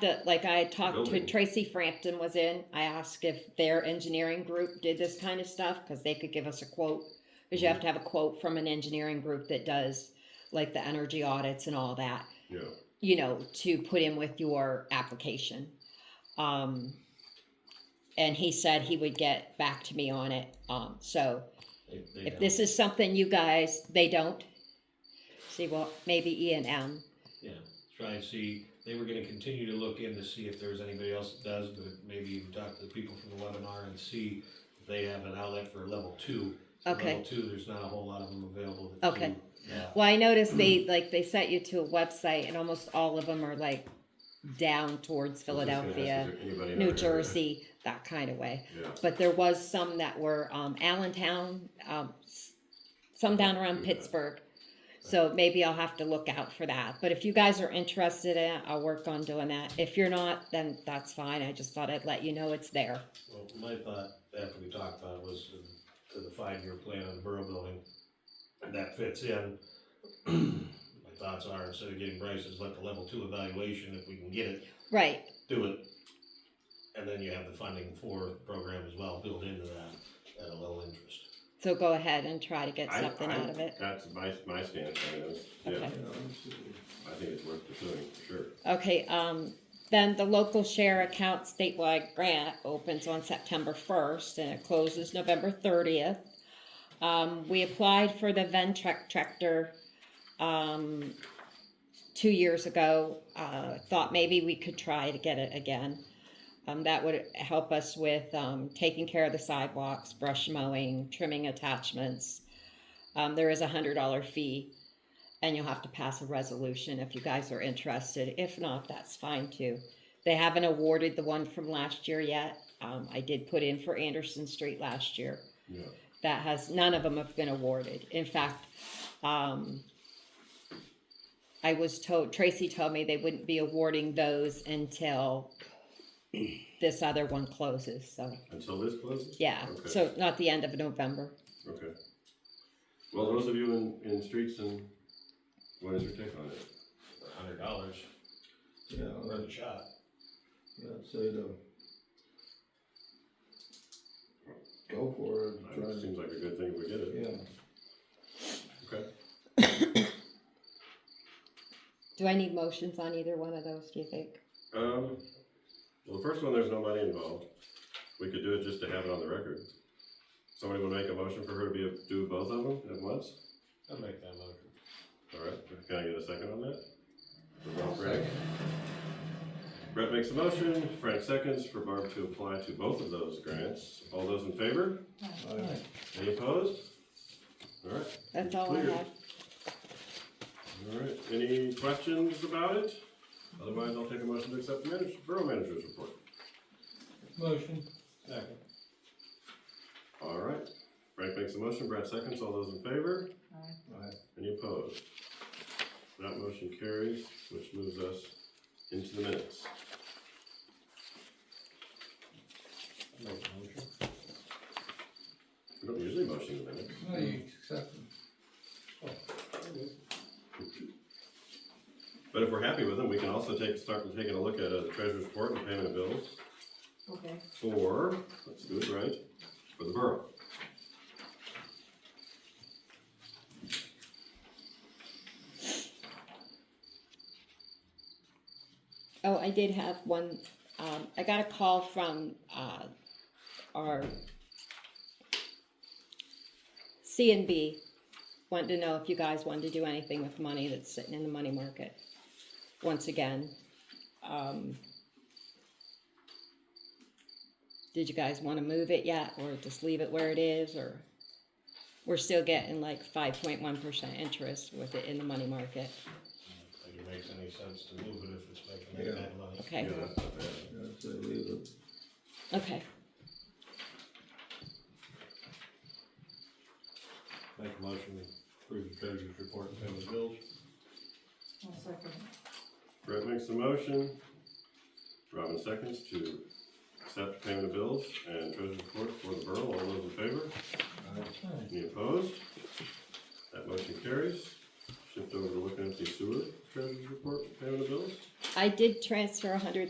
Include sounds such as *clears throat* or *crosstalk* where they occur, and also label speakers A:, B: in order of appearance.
A: that, like I talked to
B: Building.
A: Tracy Frampton was in, I asked if their engineering group did this kind of stuff, cause they could give us a quote. Cause you have to have a quote from an engineering group that does like the energy audits and all that,
B: yeah,
A: you know, to put in with your application. Um, and he said he would get back to me on it, um, so
C: If they
A: if
C: don't-
A: this is something you guys, they don't. See, well, maybe E and M,
C: Yeah, try and see, they were gonna continue to look in to see if there's anybody else that does, but maybe even talk to the people from the webinar and see if they have an outlet for level two. So
A: Okay. Oh,
C: Level two, there's not a whole lot of them available. that
A: Okay.
C: do that.
A: Well, I noticed they like they sent you to a website, and almost all of them are like down towards
B: I was just gonna ask, is
A: Philadelphia,
B: there anybody in our
A: New
B: area?
A: Jersey, that kind of way.
B: Yeah,
A: But there was some that were um, Allentown, um, s- some down around Pittsburgh. So maybe I'll have to look out for that. But if you guys are interested in it, I'll work on doing that. If you're not, then that's fine. I just thought I'd let you know it's there.
C: Well, my thought, after we talked about it, was to- to the five-year plan on the borough building, and that fits in. *clears throat* My thoughts are, instead of getting prices, let the level two evaluation, if we can get it,
A: Right.
C: do it. And then you have the funding for the program as well built into that at a low interest.
A: So go ahead and try to get
B: I-
A: something
B: I-
A: out of it.
B: That's my, my stance on it, is, yeah,
A: Okay.
B: I think it's worth pursuing, for sure.
A: Okay, um, then the local share account statewide grant opens on September first and it closes November thirtieth. Um, we applied for the Ventrac tractor, um, two years ago. Uh, thought maybe we could try to get it again. Um, that would help us with, um, taking care of the sidewalks, brush mowing, trimming attachments. Um, there is a hundred dollar fee and you'll have to pass a resolution if you guys are interested. If not, that's fine too. They haven't awarded the one from last year yet. Um, I did put in for Anderson Street last year.
B: Yeah.
A: That has, none of them have been awarded. In fact, um, I was told, Tracy told me they wouldn't be awarding those until this other one closes, so,
B: Until this closes?
A: yeah.
B: Okay.
A: So not the end of November.
B: Okay. Well, those of you in, in streets and, what is your take on it?
C: For a hundred dollars,
D: Yeah,
C: worth a shot.
D: I'd say to go for it,
B: I
D: and
B: mean, It
D: try
B: seems like a good thing if we get
D: to,
B: it,
D: yeah.
B: okay?
A: Do I need motions on either one of those, do you think?
B: Um, well, the first one, there's no money involved. We could do it just to have it on the record. Somebody would make a motion for her to be, do both of them at once?
C: I'll make that motion.
B: All right, can I get a second on that? For Bob Frank? Brett makes a motion, Frank seconds for Barb to apply to both of those grants. All those in favor?
D: I-
B: Any opposed? All right,
A: That's all I
B: Clear.
A: have.
B: all right. Any questions about it? Otherwise, I'll take a motion to accept the manager, borough manager's report.
C: Motion. Second.
B: All right, Frank makes a motion, Brett seconds, all those in favor?
D: I-
B: Any opposed? That motion carries, which moves us into the minutes.
C: Make the motion.
B: We don't usually motion the minutes.
D: No, you accept them.
B: But if we're happy with them, we can also take, start with taking a look at uh, the treasurer's report and payment of bills
E: Okay.
B: for, let's do it right, for the borough.
A: Oh, I did have one, um, I got a call from, uh, our C and B, wanted to know if you guys wanted to do anything with money that's sitting in the money market, once again. Um, did you guys wanna move it yet, or just leave it where it is, or? We're still getting like five point one percent interest with it in the money market,
C: I think it makes any sense to move it if it's making that kind of money.
A: okay?
B: Yeah, that's not bad.
D: I'd say leave it.
A: Okay,
C: Make a motion to approve the treasurer's report and payment of bills.
E: One second.
B: Brett makes the motion, Robin seconds to accept payment of bills and treasurer's report for the borough. All those in favor?
D: I-
B: Any opposed? That motion carries. Shift over to looking at the sewer treasurer's report and payment of bills.
A: I did transfer a hundred